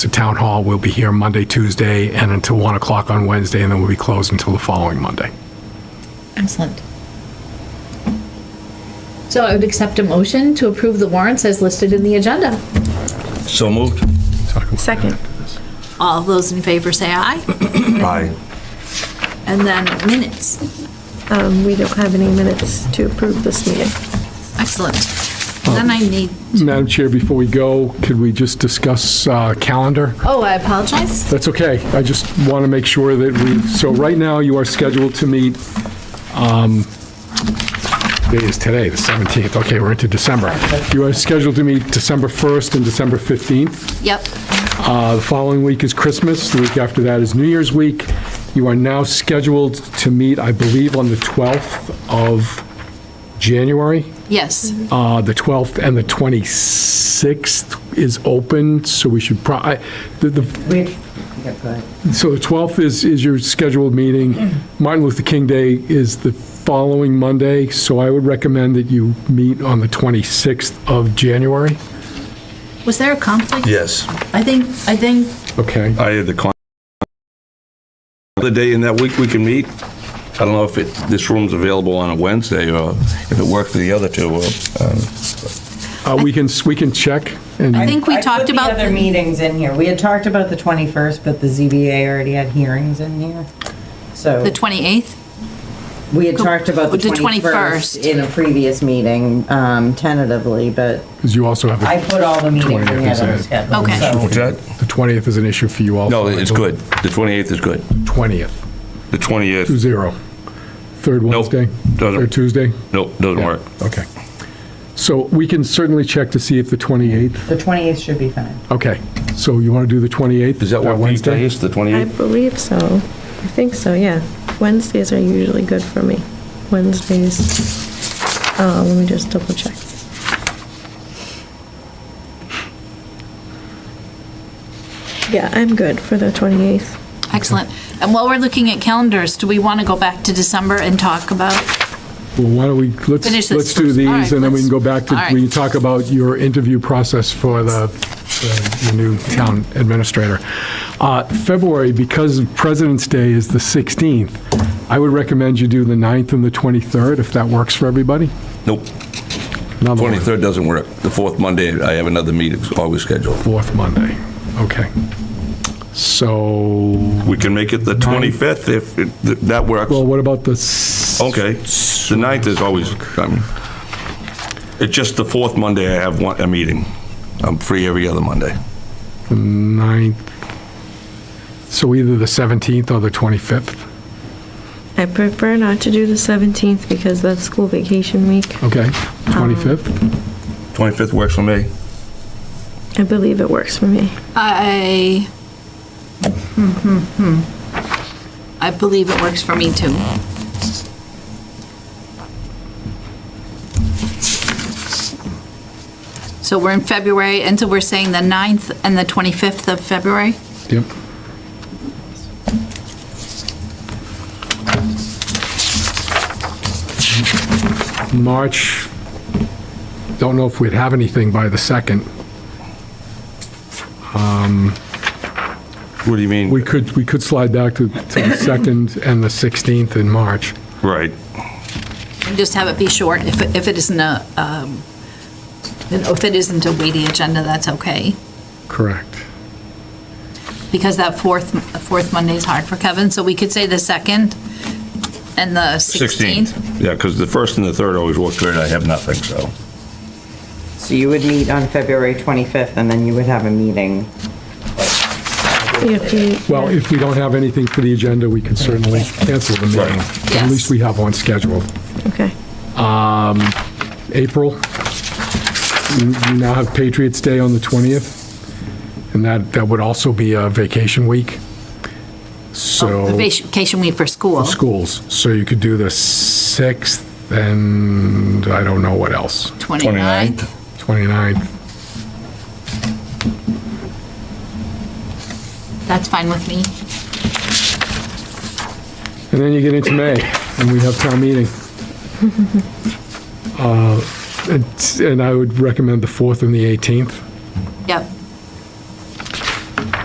The town hall will be here Monday, Tuesday, and until 1 o'clock on Wednesday, and then we'll be closed until the following Monday. Excellent. So I would accept a motion to approve the warrants as listed in the agenda. So moved. Second. All those in favor say aye, Aye. and then minutes. Um, we don't have any minutes to approve this meeting. Excellent. Then I need, Madam Chair, before we go, could we just discuss uh, calendar? oh, I apologize. That's okay. I just want to make sure that we, so right now you are scheduled to meet, um, day is today, the 17th. Okay, we're into December. You are scheduled to meet December 1st and December 15th. Yep, Uh, The following week is Christmas, the week after that is New Year's week. You are now scheduled to meet, I believe, on the 12th of January. yes. Uh, The 12th and the 26th is open, so we should probably, We, yeah, go ahead. Mm-hmm. so the 12th is, is your scheduled meeting. Martin Luther King Day is the following Monday, so I would recommend that you meet on the 26th of January. Was there a conflict? Yes. I think, I think Okay. Uh, I had the con. The day in that week we can meet. I don't know if it, this room's available on a Wednesday or if it worked for the other two. uh, Uh, We can, we can check and. I think we I talked put about the other the- meetings in here. We had talked about the 21st, but the ZBA already had hearings in here. So The 28th? we had talked about the The 21st 21st. in a previous meeting um, tentatively, but Because you also have, I a- put all the meetings in here that were 20th, scheduled. Okay. so- What's that? the 20th is an issue for you also. No, it's good. The 28th is good. 20th, The two 28th, zero. Third Nope, Wednesday? doesn't- Third Tuesday? nope, doesn't work. Okay. So we can certainly check to see if the 28th, The 28th should be fine. okay. So you want to do the 28th? Does that work for you Wednesday? guys, the I 28th? believe so. I think so, yeah. Wednesdays are usually good for me. Wednesdays, uh, let me just double check. Yeah, I'm good for the 28th. Excellent. And while we're looking at calendars, do we want to go back to December and talk about? Well, why don't we, Finish let's, this let's do first. All right, these, and then we can go back to, let's- all we right. can talk about your interview process for the, the- the new town administrator. Uh, February, because President's Day is the 16th, I would recommend you do the 9th and the 23rd, if that works for everybody. Nope. Another one, 23rd doesn't work. The fourth Monday, I have another meeting always scheduled. Fourth Monday, okay. So, We can make it the 25th if it- th- that works. well, what about the, s- Okay, the ninth is always, I mean, it's just the fourth Monday I have one, a meeting. I'm free every other Monday. the 9th? So either the 17th or the 25th, I prefer not to do the 17th because that's school vacation week. okay? Um, 25th? 25th works for me. I believe it works for me. I, hmm, hmm, hmm. I believe it works for me too. So we're in February, and so we're saying the 9th and the 25th of February? Yep. March, don't know if we'd have anything by the 2nd. What do you We mean? could, we could slide back to to the 2nd and the 16th in March. Right. Just have it be short. If, it- if it isn't a, um, if it isn't a weighty agenda, that's okay. Correct. because that fourth, fourth Monday is hard for Kevin, so we could say the 2nd and the 16th. Yeah, because the first and the third always work great. I have nothing, so. So you would meet on February 25th and then you would have a meeting. If you, Well, if we don't have anything for the agenda, we could certainly cancel the meeting. Right. At Yes. least we have one scheduled. okay. April, you you now have Patriots Day on the 20th, and that, that would also be a vacation week. So, Oh, The vacation week for school. schools, so you could do the 6th and I don't know what else, 29th. 29th. That's fine with me. And then you get into May, and we have town meeting. Uh, it's- And I would recommend the 4th and the 18th. Yep.